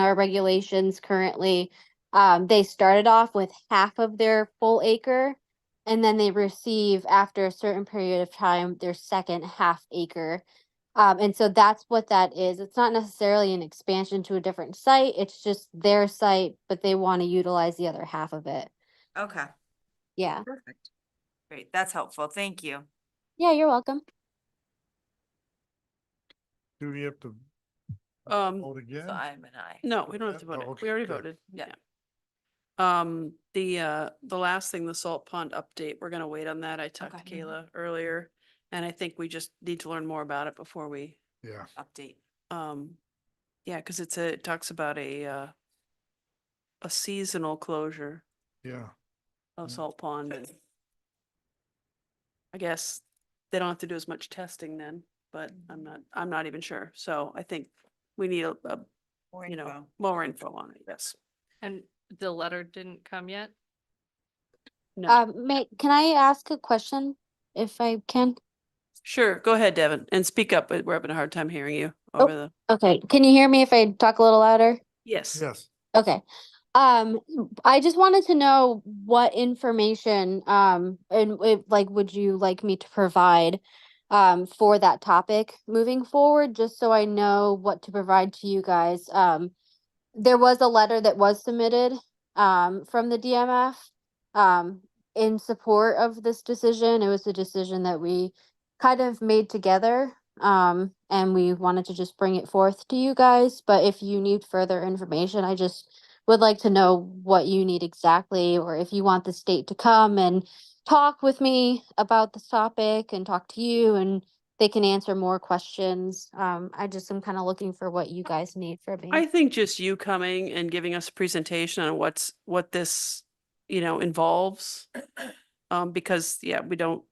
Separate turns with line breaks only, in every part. our regulations currently, um, they started off with half of their full acre. And then they receive after a certain period of time, their second half acre. Um, and so that's what that is. It's not necessarily an expansion to a different site. It's just their site, but they want to utilize the other half of it.
Okay,
Yeah.
perfect. Great, that's helpful. Thank you.
Yeah, you're welcome.
Do we have to
Um,
vote again?
So I'm an I.
no, we don't have
Yeah,
to
oh,
vote it.
okay,
We already
good.
voted.
Yeah.
Yeah. Um, the, uh, the last thing, the salt pond update, we're gonna wait on that. I talked to
Okay. Mhm.
Kayla earlier. And I think we just need to learn more about it before we,
Yeah,
Update.
um, yeah, cause it's a, it talks about a, uh, a seasonal closure
yeah.
of
Mm.
salt pond. and I guess they don't have to do as much testing then, but I'm not, I'm not even sure. So I think we need a, a, you know, more info on it, yes.
And the letter didn't come yet?
No,
Um, may, can I ask a question if I can?
sure, go ahead, Devin, and speak up. uh, We're having a hard time hearing you over the,
Okay, can you hear me if I talk a little louder?
yes.
Yes,
Okay. Um, I just wanted to know what information, um, and if, like, would you like me to provide um, for that topic moving forward, just so I know what to provide to you guys? Um, there was a letter that was submitted um, from the DMF um, in support of this decision. It was a decision that we kind of made together. Um, and we wanted to just bring it forth to you guys, but if you need further information, I just would like to know what you need exactly, or if you want the state to come and talk with me about this topic and talk to you and they can answer more questions. Um, I just am kind of looking for what you guys need from me.
I think just you coming and giving us a presentation on what's, what this, you know, involves. Um, because, yeah, we don't,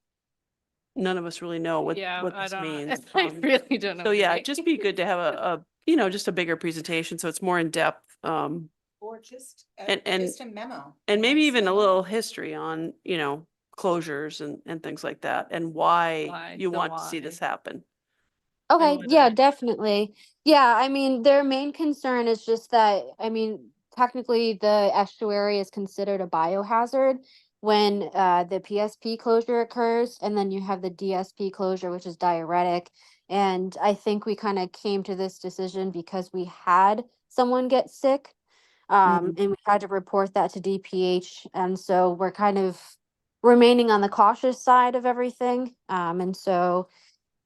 none of us really know what,
Yeah,
what
I
this
don't know.
means.
I
um,
really don't know.
So
what it
yeah, it'd just be
means.
good to have a, a, you know, just a bigger presentation, so it's more in depth. Um,
Or just,
And-
a-
and-
just a memo.
and maybe
just
even a
memo.
little history on, you know, closures and, and things like that and why
Why,
you
the
want to see this
why.
happen.
Okay,
whether
yeah,
it-
definitely. Yeah, I mean, their main concern is just that, I mean, technically the estuary is considered a biohazard when uh the PSP closure occurs and then you have the DSP closure, which is diuretic. And I think we kind of came to this decision because we had someone get sick. Um, and we had to report that to DPH. And so we're kind of remaining on the cautious side of everything. Um, and so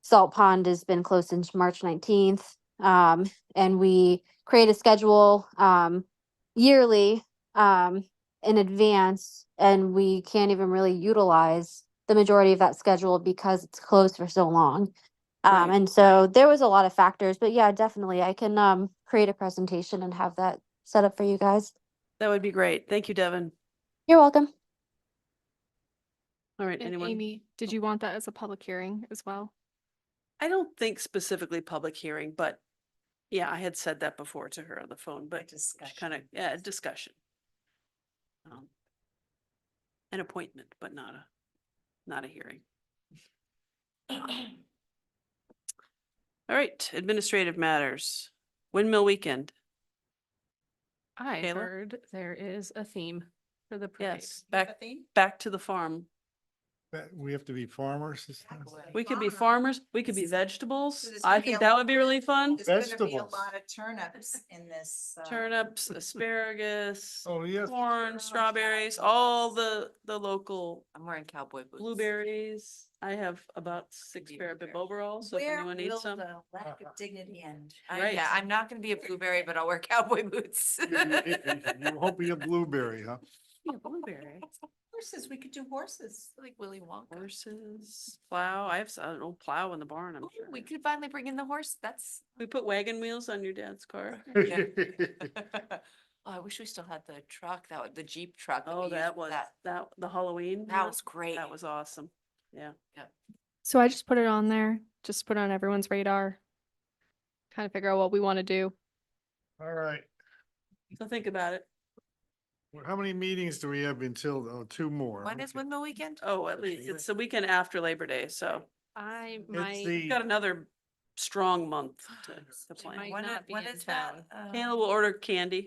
Salt Pond has been closed since March nineteenth. Um, and we create a schedule, um, yearly, um, in advance. And we can't even really utilize the majority of that schedule because it's closed for so long. Um,
Right.
and so there was a lot of factors, but yeah, definitely I can, um, create a presentation and have that set up for you guys.
That would be great. Thank you, Devin.
You're welcome.
All right,
And
anyone?
Amy, did you want that as a public hearing as well?
I don't think specifically public hearing, but yeah, I had said that before to her on the phone, but
discussion.
kind of, yeah, discussion. Um, An appointment, but not a, not a hearing. All right, administrative matters. Windmill weekend.
I
Kayla?
heard there is a theme for the parade.
Yes,
You have a
back,
theme?
back to the farm.
That- we have to be farmers this time.
Exactly.
We could be
Farmer.
farmers, we could be vegetables.
there's gonna
I
be a
think
lot
that would be really fun.
There's gonna be a
Vegetables.
lot of turnips in this. uh,
Turnips, asparagus,
Oh, yes,
corn,
Turnips,
strawberries, all the,
apples.
the local
I'm wearing cowboy boots.
blueberries. I have about six
Be a
pair of
blueberry.
biboveralls, so if
Where
anyone needs
will
some.
the Lack of dignity end.
I- Yeah,
Right.
I'm not gonna be a blueberry, but I'll wear cowboy boots.
You're hoping a blueberry, huh?
Yeah, blueberry.
Horses, we could do horses.
Like Willy Wonka.
Horses, plow. I have s- an old plow in the barn, I'm
Ooh,
sure.
We could finally bring in the horse, that's.
We put wagon wheels on your dad's car.
Yeah. Oh, I wish we still had the truck, that, wa- the Jeep truck. we
Oh,
used
that
for
was, that, the Halloween.
That
one?
was great.
That was awesome.
So I just put it on there, just put it on everyone's radar. Kind of figure out what we want to do.
All right,
So think about it.
Well, how many meetings do we have until, oh, two more?
When is
Okay.
windmill weekend?
Oh, at least it's the weekend after Labor Day, so
I
It's
might,
we've
the,
got another
strong month to, to
might
plan.
When,
not
it-
be
when
in
is that?
town.
uh,
um, Hannah will order candy.